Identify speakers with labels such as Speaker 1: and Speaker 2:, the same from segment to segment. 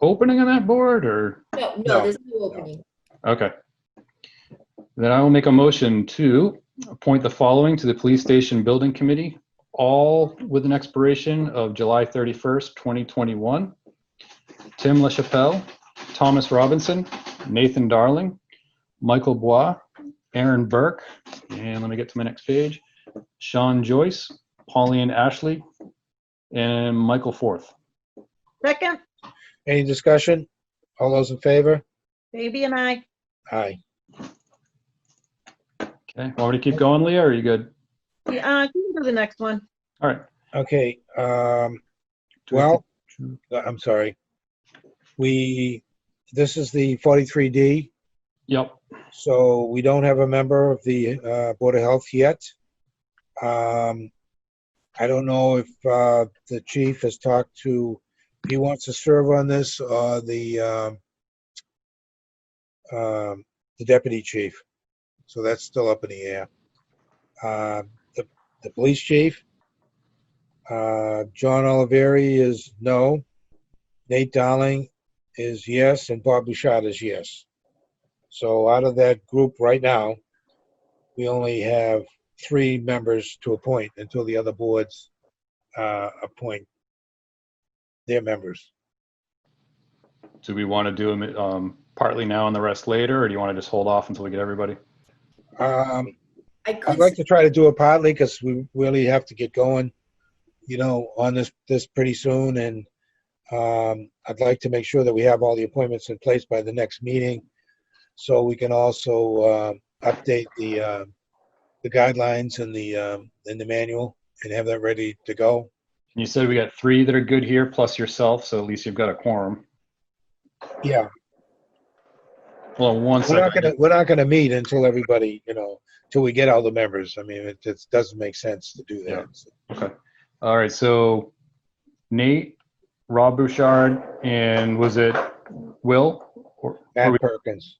Speaker 1: opening on that board or?
Speaker 2: No,
Speaker 3: No,
Speaker 2: no, there's no opening.
Speaker 1: Okay. Then I will make a motion to appoint the following to the Police Station Building Committee, all with an expiration of July 31st, 2021. Tim LaChapelle, Thomas Robinson, Nathan Darling, Michael Bois, Aaron Burke, and let me get to my next page, Sean Joyce, Pauline Ashley, and Michael Forth.
Speaker 4: Second,
Speaker 3: Any discussion? All those in favor?
Speaker 4: Baby and I.
Speaker 3: Aye.
Speaker 1: Okay, want me to keep going, Leah, or are you good?
Speaker 4: Yeah, uh, you can do the next one.
Speaker 1: All right.
Speaker 3: Okay, um, well, I'm sorry. We, this is the 43D,
Speaker 1: Yep,
Speaker 3: so we don't have a member of the uh, Board of Health yet. Um, I don't know if uh, the chief has talked to, if he wants to serve on this, or the, um, um, the deputy chief. So that's still up in the air. Uh, The, the police chief, uh, John Oliveri is no. Nate Darling is yes, and Bob Bouchard is yes. So out of that group right now, we only have three members to appoint until the other boards uh, appoint their members.
Speaker 1: Do we want to do them um, partly now and the rest later, or do you want to just hold off until we get everybody?
Speaker 3: Um,
Speaker 2: I
Speaker 3: I'd
Speaker 2: could,
Speaker 3: like to try to do it partly because we really have to get going, you know, on this, this pretty soon. And um, I'd like to make sure that we have all the appointments in place by the next meeting. So we can also uh, update the, uh, the guidelines and the, um, and the manual and have that ready to go.
Speaker 1: And you said we got three that are good here, plus yourself, so at least you've got a quorum.
Speaker 3: Yeah,
Speaker 1: Well, one
Speaker 3: we're not
Speaker 1: second.
Speaker 3: gonna, we're not gonna meet until everybody, you know, till we get all the members. I mean, it just doesn't make sense to do that.
Speaker 1: Okay. All right. So Nate, Rob Bouchard, and was it Will or
Speaker 3: Matt Perkins.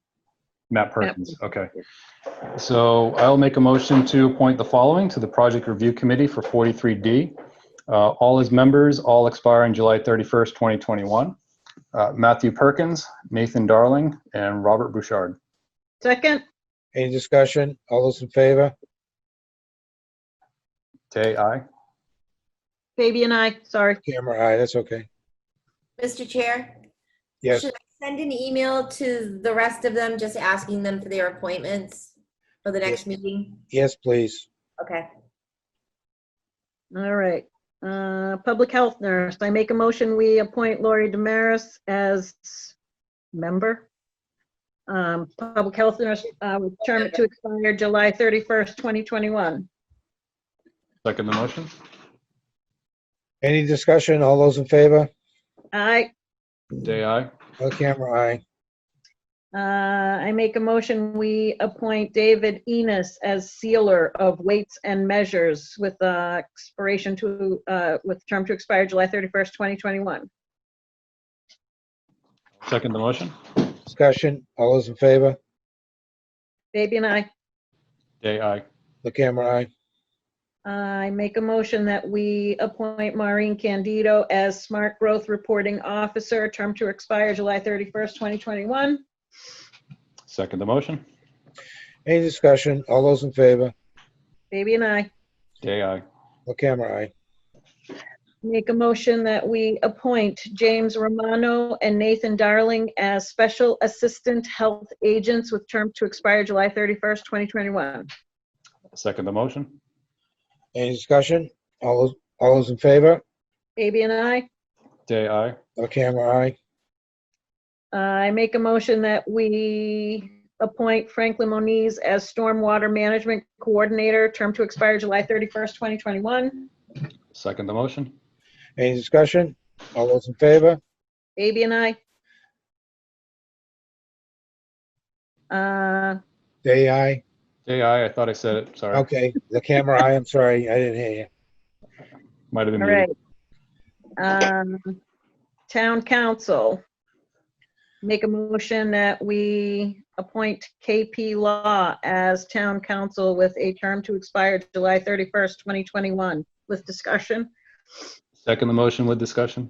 Speaker 1: Matt Perkins? Okay. So I'll make a motion to appoint the following to the Project Review Committee for 43D. Uh, All as members, all expiring July 31st, 2021. Uh, Matthew Perkins, Nathan Darling, and Robert Bouchard.
Speaker 4: Second,
Speaker 3: Any discussion? All those in favor?
Speaker 1: Tay, aye.
Speaker 4: Baby and I, sorry.
Speaker 3: Camera, aye, that's okay.
Speaker 2: Mr. Chair?
Speaker 3: Yes,
Speaker 2: Should I send an email to the rest of them, just asking them for their appointments for the next meeting?
Speaker 3: yes, please.
Speaker 2: Okay.
Speaker 4: All right. Uh, Public Health Nurse, I make a motion, we appoint Lori Damaris as member. Um, Public Health Nurse, uh, with term to expire July 31st, 2021.
Speaker 1: Second the motion?
Speaker 3: Any discussion? All those in favor?
Speaker 4: I,
Speaker 1: Day, aye.
Speaker 3: Oh, camera, aye.
Speaker 4: uh, I make a motion, we appoint David Enos as sealer of weights and measures with, uh, expiration to, uh, with term to expire July 31st, 2021.
Speaker 1: Second the motion?
Speaker 3: Discussion? All those in favor?
Speaker 4: Baby and I.
Speaker 1: Day, aye.
Speaker 3: The camera, aye.
Speaker 4: I make a motion that we appoint Maureen Candido as Smart Growth Reporting Officer, term to expire July 31st, 2021.
Speaker 1: Second the motion?
Speaker 3: Any discussion? All those in favor?
Speaker 4: Baby and I
Speaker 1: Day, aye.
Speaker 3: The camera, aye.
Speaker 4: make a motion that we appoint James Romano and Nathan Darling as Special Assistant Health Agents with term to expire July 31st, 2021.
Speaker 1: Second the motion?
Speaker 3: Any discussion? All, those all those in favor?
Speaker 4: Baby and I.
Speaker 1: Day, aye.
Speaker 3: The camera, aye.
Speaker 4: I make a motion that we appoint Franklin Moniz as Stormwater Management Coordinator, term to expire July 31st, 2021.
Speaker 1: Second the motion?
Speaker 3: Any discussion? All those in favor?
Speaker 4: Baby and I. Uh,
Speaker 3: Day, aye.
Speaker 1: Day, aye. I thought I said it. Sorry.
Speaker 3: Okay, the camera, aye. I'm sorry, I didn't hear you.
Speaker 1: Might have been
Speaker 4: all
Speaker 1: muted.
Speaker 4: right. Um, Town Council. Make a motion that we appoint KP Law as Town Council with a term to expire July 31st, 2021, with discussion.
Speaker 1: Second the motion with discussion?